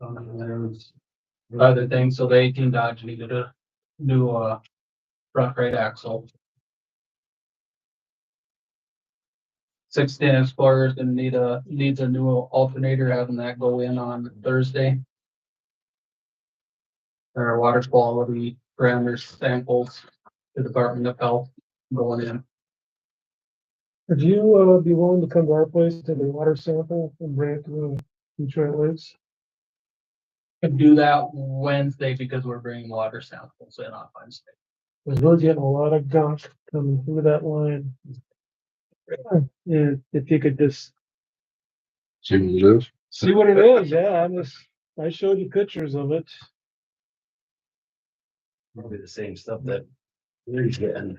Um, there was other things, so the eighteen Dodge needed a new, uh, front right axle. Sixteen Explorer's gonna need a, needs a new alternator, having that go in on Thursday. Our water quality parameters samples to Department of Health going in. Would you, uh, be willing to come to our place, take the water sample and bring it to the Detroit Lakes? Could do that Wednesday because we're bringing water samples in on Wednesday. Cause we're getting a lot of gunk coming through that line. And if you could just See what it is? see what it is, yeah, I'm just, I showed you pictures of it. Probably the same stuff that they're getting,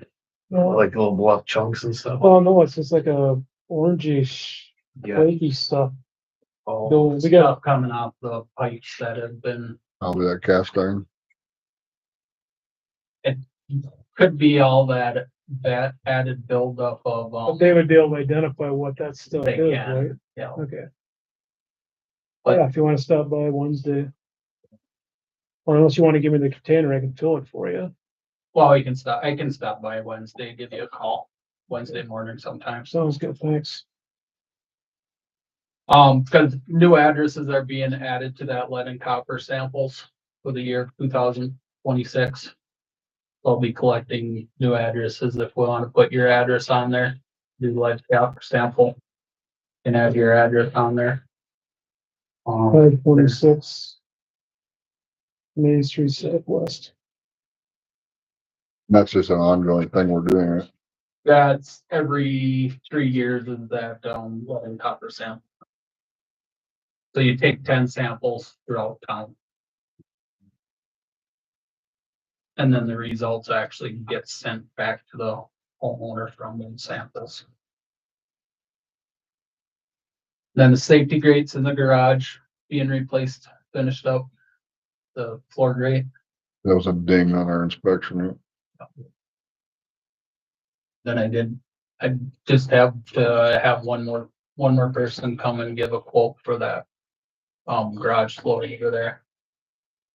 No, like little block chunks and stuff. oh no, it's just like a orangish, flaky stuff. Oh, No, we got, Stuff coming off the pipes that have been, Probably that cast iron. could be all that, that added buildup of, um, they would be able to identify what that stuff They is, can. right? you know, Okay. But- Yeah, if you wanna stop by Wednesday. Or unless you wanna give me the container, I can fill it for you. well, you can stop, I can stop by Wednesday, give you a call Wednesday morning sometimes. Sounds good, thanks. Um, because new addresses are being added to that lead and copper samples for the year two thousand twenty-six. I'll be collecting new addresses if we want to put your address on there, do lead copper sample. And have your address on there. Um, Five forty-six. Main Street Southwest. And That's just an ongoing thing we're doing, right? that's every three years is that, um, lead and copper sample. So you take ten samples throughout town. And then the results actually get sent back to the homeowner from the samples. Then the safety grates in the garage being replaced, finished up. The floor grate. That was a ding on our inspection. right? Then I did, I just have to have one more, one more person come and give a quote for that. Um, garage floor heater there.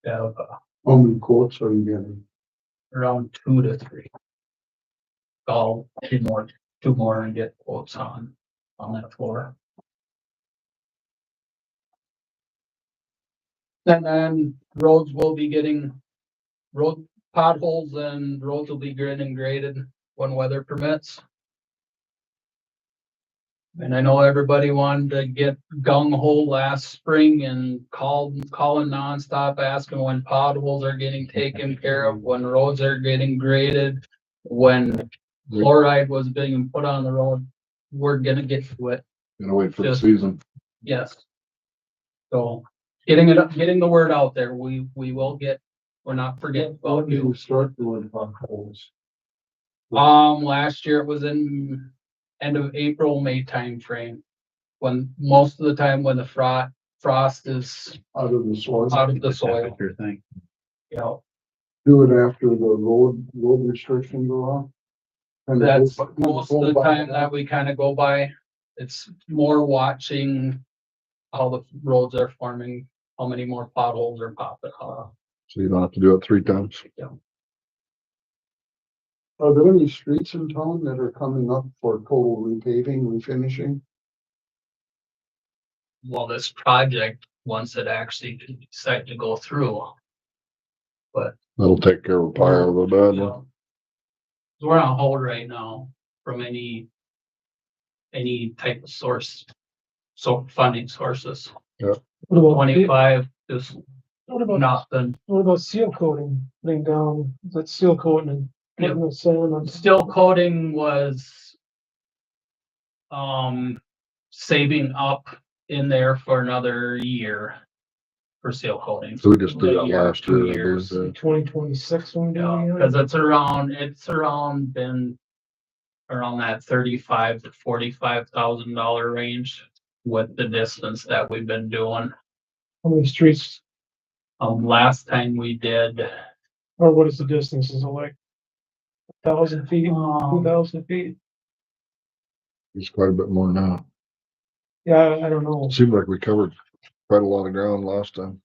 Yeah, uh, How many quotes are you getting? around two to three. Call two more, two more and get quotes on, on that floor. And then roads will be getting road potholes and roads will be grid and graded when weather permits. And I know everybody wanted to get gung ho last spring and called, calling nonstop, asking when potholes are getting taken care of, when roads are getting graded. When fluoride was being put on the road, we're gonna get to it, Gotta wait for the Just- season. yes. So, getting it, up, getting the word out there, we, we will get, we're not forgetting How about do you. you start doing potholes? Um, last year it was in end of April, May timeframe. When most of the time when the frost, frost is Out of the soil? out of the soil, Your thing. you know, Do it after the road, road restriction go off? And the whole- that's and most whole of the bike time path? that we kind of go by. It's more watching how the roads are forming, how many more potholes are popping up. So you don't have to do it three times. Are there any streets in town that are coming up for total repaving, refinishing? Well, this project, once it actually decide to go through, That'll take care of a pile of the Yeah. bad. um, So We're on hold right now from any, any type of source, so funding sources. What about, the- Twenty-five is what about, nothing, what about seal coating, laying down, that seal coating and Yep. putting the sand on? still coding was um, saving up in there for another year for seal coding. So we just did that Yeah, last two year. I years. believe, uh, Twenty twenty-six one Yeah, down cause it's around, it's around been around that thirty-five to forty-five thousand dollar range with the distance that we've been doing. How many streets, Um, last time we did, or what is the distance, is it like? a Thousand feet, two um, thousand feet, It's quite a bit more now. yeah, I I don't know, Seemed like we covered quite a lot of ground last time.